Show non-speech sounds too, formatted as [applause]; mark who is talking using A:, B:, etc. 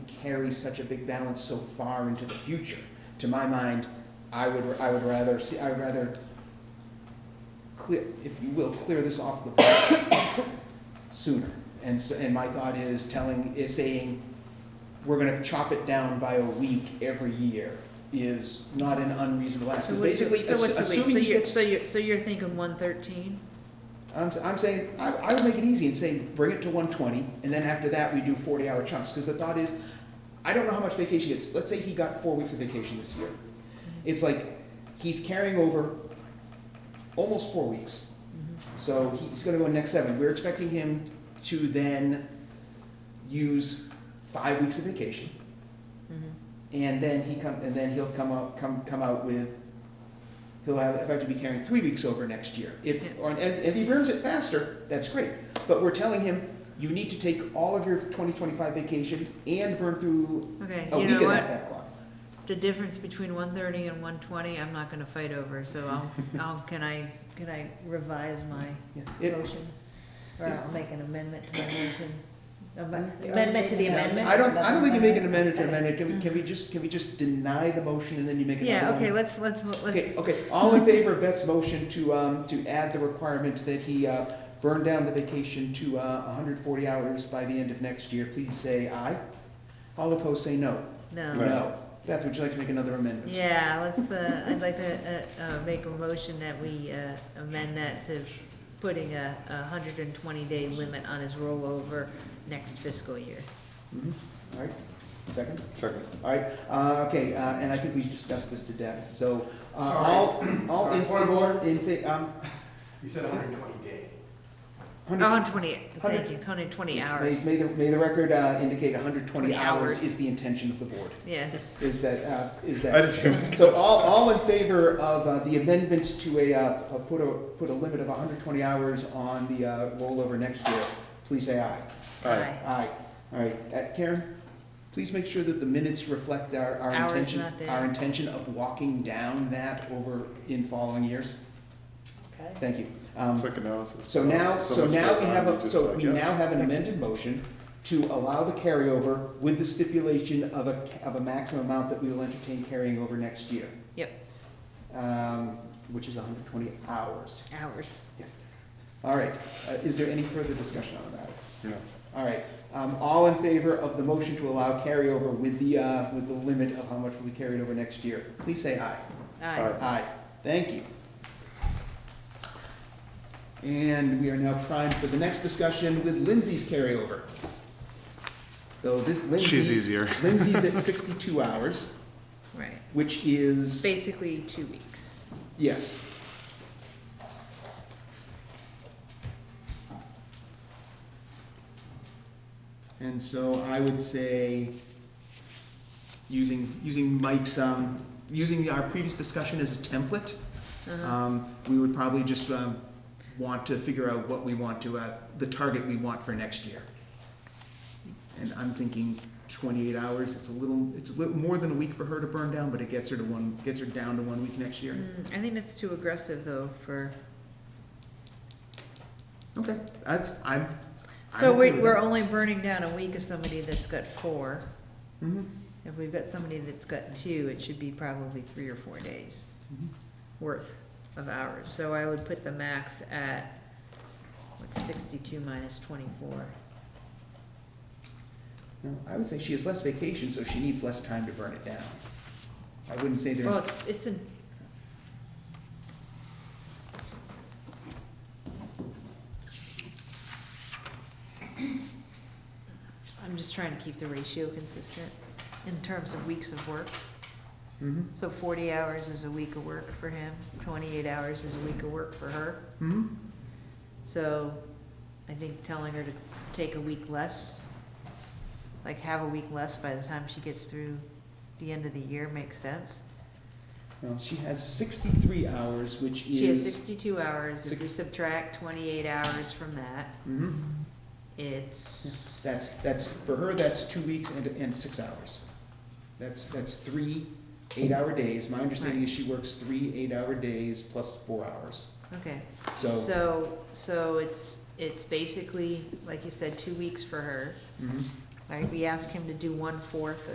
A: carry such a big balance so far into the future. To my mind, I would, I would rather see, I would rather clear, if you will, clear this off the books [coughs] sooner. And so, and my thought is telling, is saying, we're gonna chop it down by a week every year is not an unreasonable ask.
B: So
A: 'Cause
B: what's a
A: basically,
B: week, so what's a week, so
A: assuming he
B: you're,
A: gets
B: so you're, so you're thinking one thirteen?
A: I'm, s am saying, I, I would make it easy and say, bring it to one twenty, and then after that, we do forty hour chunks, cause the thought is, I don't know how much vacation he gets, let's say he got four weeks of vacation this year. It's like, he's carrying over almost four weeks, so he's gonna go in next seven, we're expecting him to then use five weeks of vacation.
B: Mm-hmm.
A: And then he come, and then he'll come out, come, come out with, he'll have, if I have to be carrying three weeks over next year. If,
B: Yeah.
A: or, and if he burns it faster, that's great, but we're telling him, you need to take all of your twenty twenty-five vacation and burn through
B: Mm-hmm. Okay,
A: a
B: you
A: week
B: know
A: of that
B: what,
A: backlog.
B: the difference between one thirty and one twenty, I'm not gonna fight over, so
A: [laughs]
B: I'll, I'll, can I, can I revise my
A: Yeah. It-
B: motion? Or
A: it-
B: I'll make an amendment to my motion, Am-
C: You-
B: amendment to the
C: Yeah.
B: amendment?
A: I don't, I don't think you make an amendment to amendment, can we, can we just, can we just deny the motion and then you make another
B: Mm-hmm. Yeah,
A: one?
B: okay, let's, let's, mo-
A: Okay,
B: let's,
A: okay, all in favor of Beth's motion to, um, to add the requirement that he, uh, burn down the vacation to, uh, hundred forty hours by the end of next year, please say aye. All opposed, say no.
B: no,
A: No. Beth, would you like to make another amendment?
B: yeah, let's, uh, I'd like to, uh, uh, make a motion that we, uh, amend that to putting a, a hundred and twenty day limit on his rollover next fiscal year.
A: Mhm. All right, second,
D: Second.
A: all right, uh, okay, uh, and I think we discussed this to death, so, uh, all, all in.
E: Point of order.
A: In, fa- um,
E: You said hundred and twenty day.
A: hundred.
B: Oh, 120, thank
A: Hundred-
B: you, 120
A: Yes,
B: hours,
A: May, may the, may the record, uh, indicate hundred twenty
B: 20
A: hours
B: hours.
A: is the intention of the board,
B: yes.
A: is that, uh, is that.
D: I did too.
A: So all, all in favor of uh, the amendment to a, uh, uh, put a, put a limit of hundred twenty hours on the uh, rollover next year, please say aye.
D: Aye.
B: Aye.
A: Aye. All right, Uh, Karen, please make sure that the minutes reflect our, our
B: Hours
A: intention.
B: not there.
A: Our intention of walking down that over in following years.
C: Okay.
A: Thank you. Um,
D: It's like analysis.
A: so now, so
D: much
A: now
D: goes
A: we
D: on,
A: have,
D: you
A: a
D: just
A: so
D: like,
A: we
D: yeah.
A: now have an amended motion to allow the carryover with the stipulation of a, of a maximum amount that we will entertain carrying over next year.
B: Yep.
A: Um, which is hundred twenty hours,
B: Hours.
A: yes. All right, uh, is there any further discussion on the matter?
D: Yeah.
A: All right, um, all in favor of the motion to allow carryover with the, uh, with the limit of how much will be carried over next year, please say aye.
B: Aye.
A: Aye, thank you. And we are now primed for the next discussion with Lindsay's carryover. So this Lindsay.
D: She's easier.
A: Lindsay's at sixty-two hours,
B: Right,
A: which is,
B: basically two weeks.
A: yes. And so I would say, using, using Mike's, um, using our previous discussion as a template,
B: Uh-huh.
A: um, we would probably just, um, want to figure out what we want to, uh, the target we want for next year. And I'm thinking twenty-eight hours, it's a little, it's a little more than a week for her to burn down, but it gets her to one, gets her down to one week next year.
B: Mm, I think that's too aggressive, though, for,
A: Okay, that's, I'm, I'm
B: so we,
A: okay with
B: we're
A: that.
B: only burning down a week of somebody that's got four.
A: Mhm,
B: If we've got somebody that's got two, it should be probably three or four days
A: mhm.
B: worth of hours. So I would put the max at, what's 62 minus 24?
A: No, I would say she has less vacation, so she needs less time to burn it down. I wouldn't say
B: Well,
A: there's,
B: it's, it's a, I'm just trying to keep the ratio consistent in terms of weeks of work.
A: mhm,
B: So forty hours is a week of work for him, twenty-eight hours is a week of work for her.
A: mhm,
B: So I think telling her to take a week less, like have a week less by the time she gets through the end of the year makes sense.
A: well, she has sixty-three hours, which is.
B: She has sixty-two hours, if we
A: Six-
B: subtract twenty-eight hours from that,
A: mhm.
B: it's,
A: That's, that's, for her, that's two weeks and, and six hours. That's, that's three eight-hour days. My understanding is she works three eight-hour days plus four hours.
B: okay.
A: So,
B: So, so it's, it's basically, like you said, two weeks for her,
A: mhm,
B: Like, we ask him to do one-fourth